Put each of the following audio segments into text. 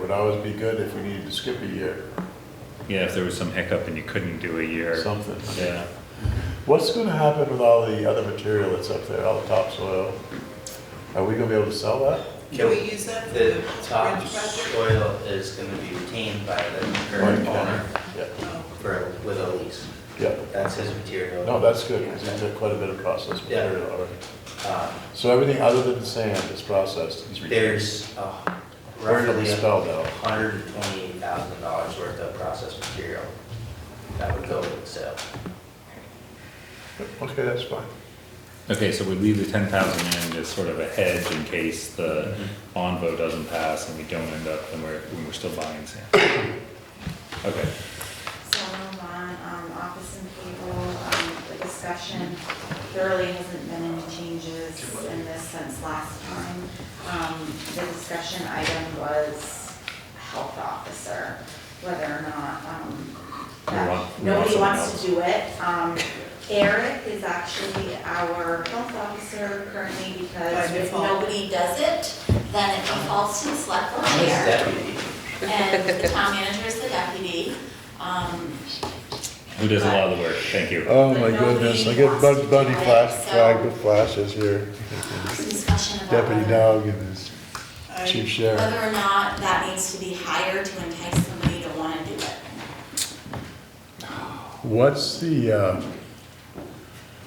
would always be good if we needed to skip a year, Yeah, if there was some hiccup and you couldn't do a or year. something. Yeah, What's gonna happen with all the other material that's up there, all the topsoil? Are we gonna be able to sell that? Can we use that for the The bridge top project? soil is gonna be retained by the current owner Yeah, Oh, for, with a lease. yeah. That's his material. No, that's good, because he's got quite a bit of processed Yeah. material already. Um, So everything other than sand is processed, he's. There's uh, Where do we roughly a spell that? hundred and twenty-eight thousand dollars worth of processed material that would go with the sale. Okay, that's fine. okay, so we leave the ten thousand in as sort of a hedge in case the Mm-hmm. bond vote doesn't pass and we don't end up, and we're, when we're still buying sand. Okay, So we'll move on, um, office and cable, um, the discussion, there really hasn't been any changes in this since last time. Um, the discussion item was health officer, whether or not, um, We that- want- we want nobody someone wants else. to do it. Um, Eric is actually our health officer currently because By if default. nobody does it, then it defaults to the select board I'm his chair deputy. and the town manager is the deputy. Um, who does a lot of the work, thank you. Oh my goodness, I get Bud Bunny flash, flag with flashes here. there's a discussion about Deputy whether, Dog and his I- chief sheriff. whether or not that needs to be hired to entice somebody to wanna do it. What's the, uh,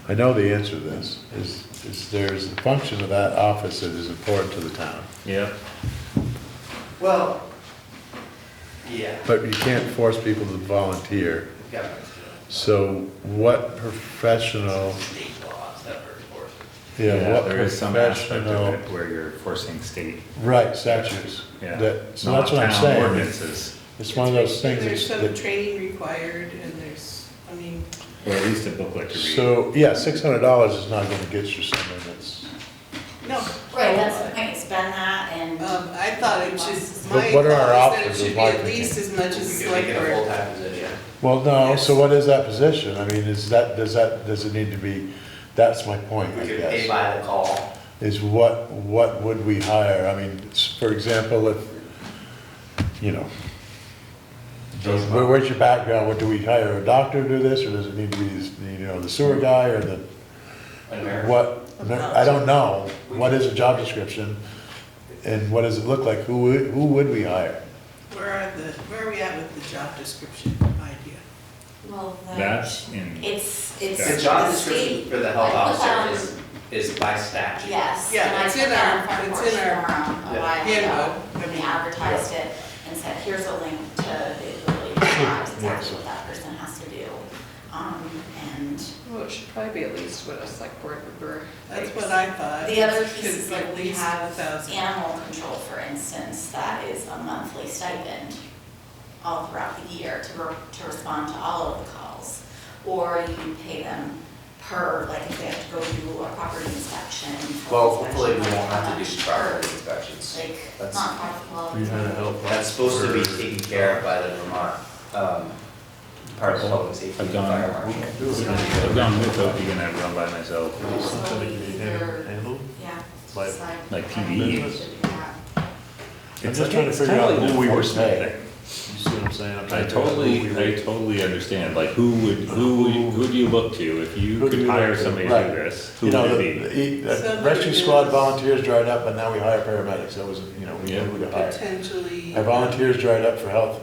I know the answer to this, is, is there's a function of that office that is important to the town. Yeah, Well, yeah, But you can't force people to volunteer. government's So what professional, Oh. state laws that were enforced. yeah, yeah, what there is some aspect of professional, it where you're forcing state, right, statutes. yeah. That, so not that's what I'm town saying. Ordinances, It's one of those things There's that's- some that training required and there's, I mean, or at least a booklet to read. So, yeah, six hundred dollars is not gonna get you something that's, no, Right, that's the point, it's been that and. um, I thought it just, But my what are our thought is that it options should of be at marketing? least as much as We could like make it a full-time position. well, no, so Yes. what is that position? I mean, is that, does that, does it need to be, that's my point, We I could pay guess. by the call. Is what, what would we hire? I mean, s- for example, if, you know, where- where's your background? What, do we hire a doctor to do this, or does it need to be, this- you know, the sewer guy or the, an American. what? I don't know. What is a job description? And what does it look like? Who, would- who would we hire? where are the, where are we at with the job description idea? Well, the- That's in. It's, it's. The job state- description for the health I put that officer on- is, is by statute. Yes. Yeah, and I it's put in that our- on it's Front in our Porch Forum a Yeah. while ago. handbook. I We mean, advertised it and said, here's a link to the ability to drive, exactly what that person has to do. Um, and Well, it should probably be at least what a select board member. That's makes. what I thought. The other Could piece is be at like we least have 1,000. animal control, for instance, that is a monthly stipend all throughout the year to, re- to respond to all of the calls. Or you pay them per, like if they have to go do a property inspection. health Well, hopefully we inspection, won't have to do like, property inspections. Like, That's- not profitable. That's supposed to be taken care of by the Vermont, um, part of public safety I've and gone- fire marshal. I've gone with Opie and I've gone by myself. Something to be hand- handled? Yeah. Like- it's Like PPE. I should do that. I'm It's just like- trying to it's figure kind of out like who an we would enforcement pay. thing. You see what I'm saying? I'm I trying to figure out who totally, we I would- totally understand, like, who would, who, would- who do you look to if you Who do could we hire look to? somebody to do Right. this? Who You know, would the, it be? the- the Somebody rescue squad who's- volunteers dried up, and now we hire paramedics, that was, you know, we Yeah. knew who to hire. Potentially. Our volunteers dried up for health,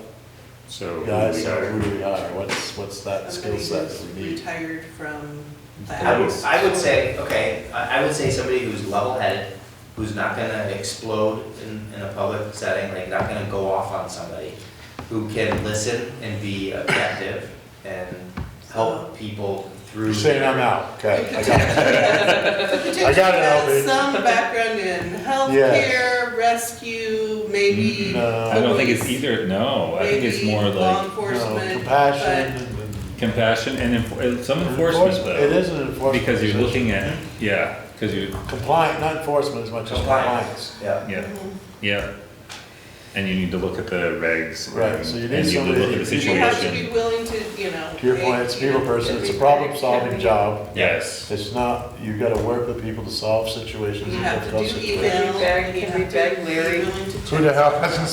So. who guys, we so hire? who do we hire, what's, what's that skill Somebody set who's that we need? retired from. the I would, house. I would say, okay, I, I would say somebody who's level-headed, who's not gonna explode in, in a public setting, like not gonna go off on somebody, who can listen and be objective and help people through. You're saying I'm their- out, okay, I got it. Potentially I got it, Albert. has some background in healthcare, rescue, maybe. Mm, No. I don't think it's either, no, I think it's maybe more Law like No, enforcement. compassion and- and. compassion and enfor- some enforcement It is though. an enforcement. Because you're position. looking at, yeah, because you're, Compliant, not enforcement as much as compliance. Compliance, yeah, yeah. Mm-hmm. yeah. And you need to look at the regs. Right, and- so you need and somebody look at that- the but You have to situation. be willing to, you know. To your point, it's a people person, it's a problem-solving job. Yes. It's not, you gotta work with people to solve situations You and have to difficult do situations. email, Feedback, you have to be feedback, Larry. willing to Who the hell hasn't